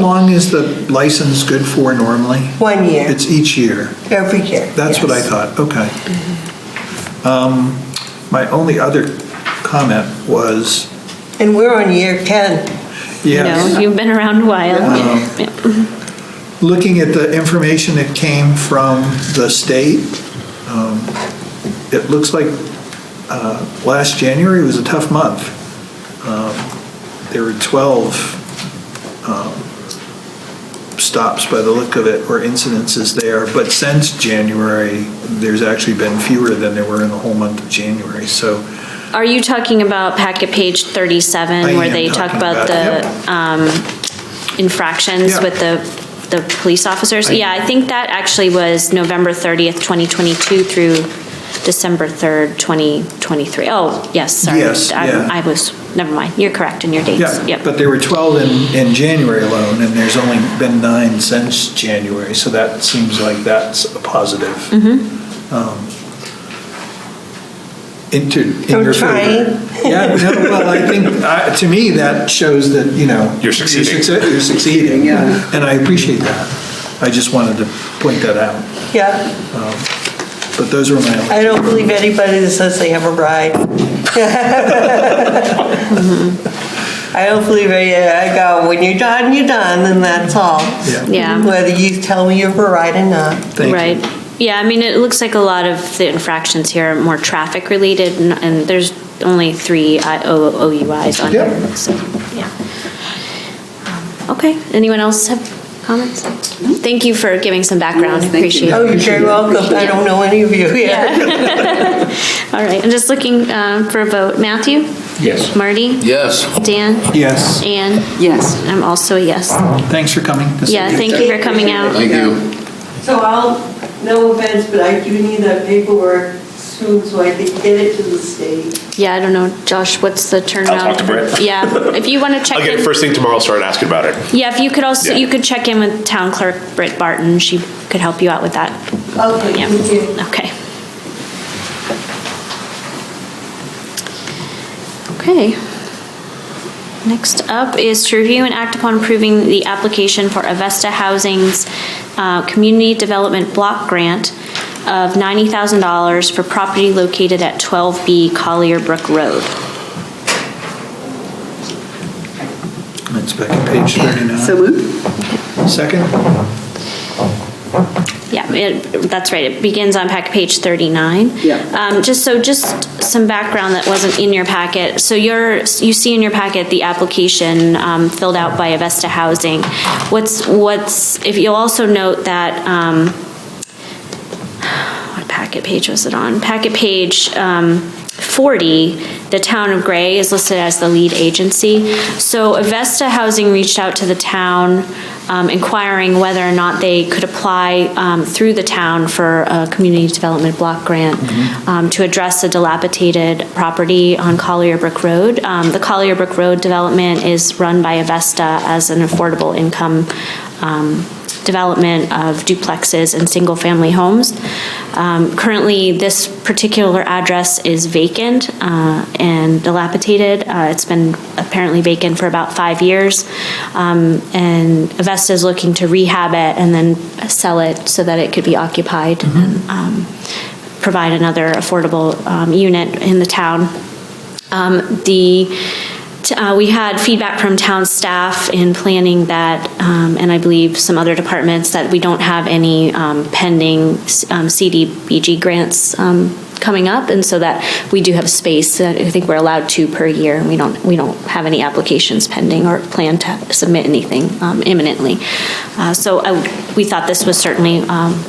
long is the license good for normally? One year, It's each year. every year. That's what I yes. thought, okay. Um, My only other comment was, And we're on year 10. You know, yes, you've been around a while. Yeah. looking at the information that came from the state, um, it looks like uh, last January was a tough month. Um, There were 12 um, stops by the look of it, or incidences there, but since January, there's actually been fewer than there were in the whole month of January, so. Are you talking about packet page 37, I where am they talk talking about about it, the um, infractions Yeah. with the, the police officers? I- Yeah, I think that actually was November 30th, 2022 through December 3rd, 2023. Oh, yes, sorry. Yes, I- yeah. I was, never mind, you're correct in your dates. Yeah, Yep. but there were 12 in, in January alone, and there's only been nine since January, so that seems like that's a positive. Um, Into, in I'm your favor. trying. Yeah, no, well, I think, I- to me, that shows that, you know. You're succeeding. succe- You're succeeding, yeah, and I appreciate that. I just wanted to point that out, Yeah, but those were my. I don't believe anybody that says they have a ride. I don't believe, it. I go, when you're done, you're done, and that's all. Yeah. Yeah. Whether you tell me you have a ride or not. Thank you. Right. Yeah, I mean, it looks like a lot of the infractions here are more traffic-related, and- and there's only three I- O- OUIs on here, Yep. so, yeah. Um, Okay, anyone else have comments? Mm-hmm. Thank you for giving some background, Yes, thank you. appreciate Oh, it. you're very welcome, I don't know any of you here. All right, I'm just looking um, for a vote. Matthew? Yes. Marty? Yes. Dan? Yes, Anne? Yes. I'm also a yes. thanks for coming. This is Yeah, good. thank you for coming out. Thank you. So I'll, no offense, but I do need that paperwork soon, so I can get it to the state. Yeah, I don't know, Josh, what's the turnaround? to Brett. Yeah, if you want to check I'll in. get it first thing tomorrow, I'll start asking about it. Yeah, if you could also, Yeah. you could check in with Town Clerk Britt Barton, she could help you out with that. Okay, Yeah, thank you. okay. Okay. Next up is to review and act upon approving the application for Avesta Housing's uh, Community Development Block Grant of $90,000 for property located at 12B Collier Brook Road. It's back at page 39. So moved? Second? Yeah, it- that's right, it begins on pack page 39. Yeah. Um, Just, so just some background that wasn't in your packet. So you're, you see in your packet the application um, filled out by Avesta Housing. What's, what's, if you'll also note that, um, what packet page was it on? Packet page um, 40, the town of Gray is listed as the lead agency. So Avesta Housing reached out to the town um, inquiring whether or not they could apply um, through the town for a community development block grant um, to address a dilapidated property on Collier Brook Road. Um, The Collier Brook Road development is run by Avesta as an affordable income um, development of duplexes and single-family homes. Um, Currently, this particular address is vacant uh, and dilapidated. Uh, It's been apparently vacant for about five years, Um, and Avesta is looking to rehab it and then sell it so that it could be occupied and um, provide another affordable um, unit in the town. Um, The, t- uh, we had feedback from town staff in planning that, um, and I believe some other departments, that we don't have any um, pending s- um, CDBG grants um, coming up, and so that we do have space, that I think we're allowed two per year, and we don't, we don't have any applications pending or plan to submit anything um, imminently. Uh, So I w- we thought this was certainly um,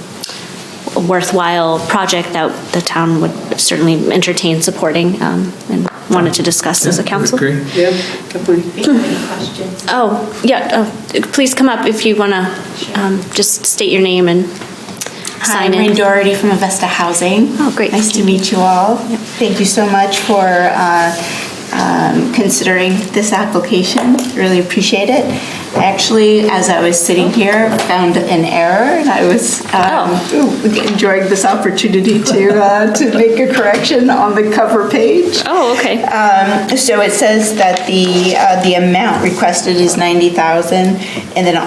a worthwhile project that the town would certainly entertain supporting um, and wanted to discuss as a council. Agree? Yeah, definitely. Oh, yeah, uh, please come up if you want to just state your name and Hi, sign I'm Maureen in. Doherty from Avesta Housing. Oh, great. Nice to meet you all. Thank you so much for uh, um, considering this application. Really appreciate it. Actually, as I was sitting here, found an error, and I was um, enjoying this opportunity to uh, to make a correction on the cover page. Oh, okay. Um, So it says that the uh, the amount requested is 90000 and then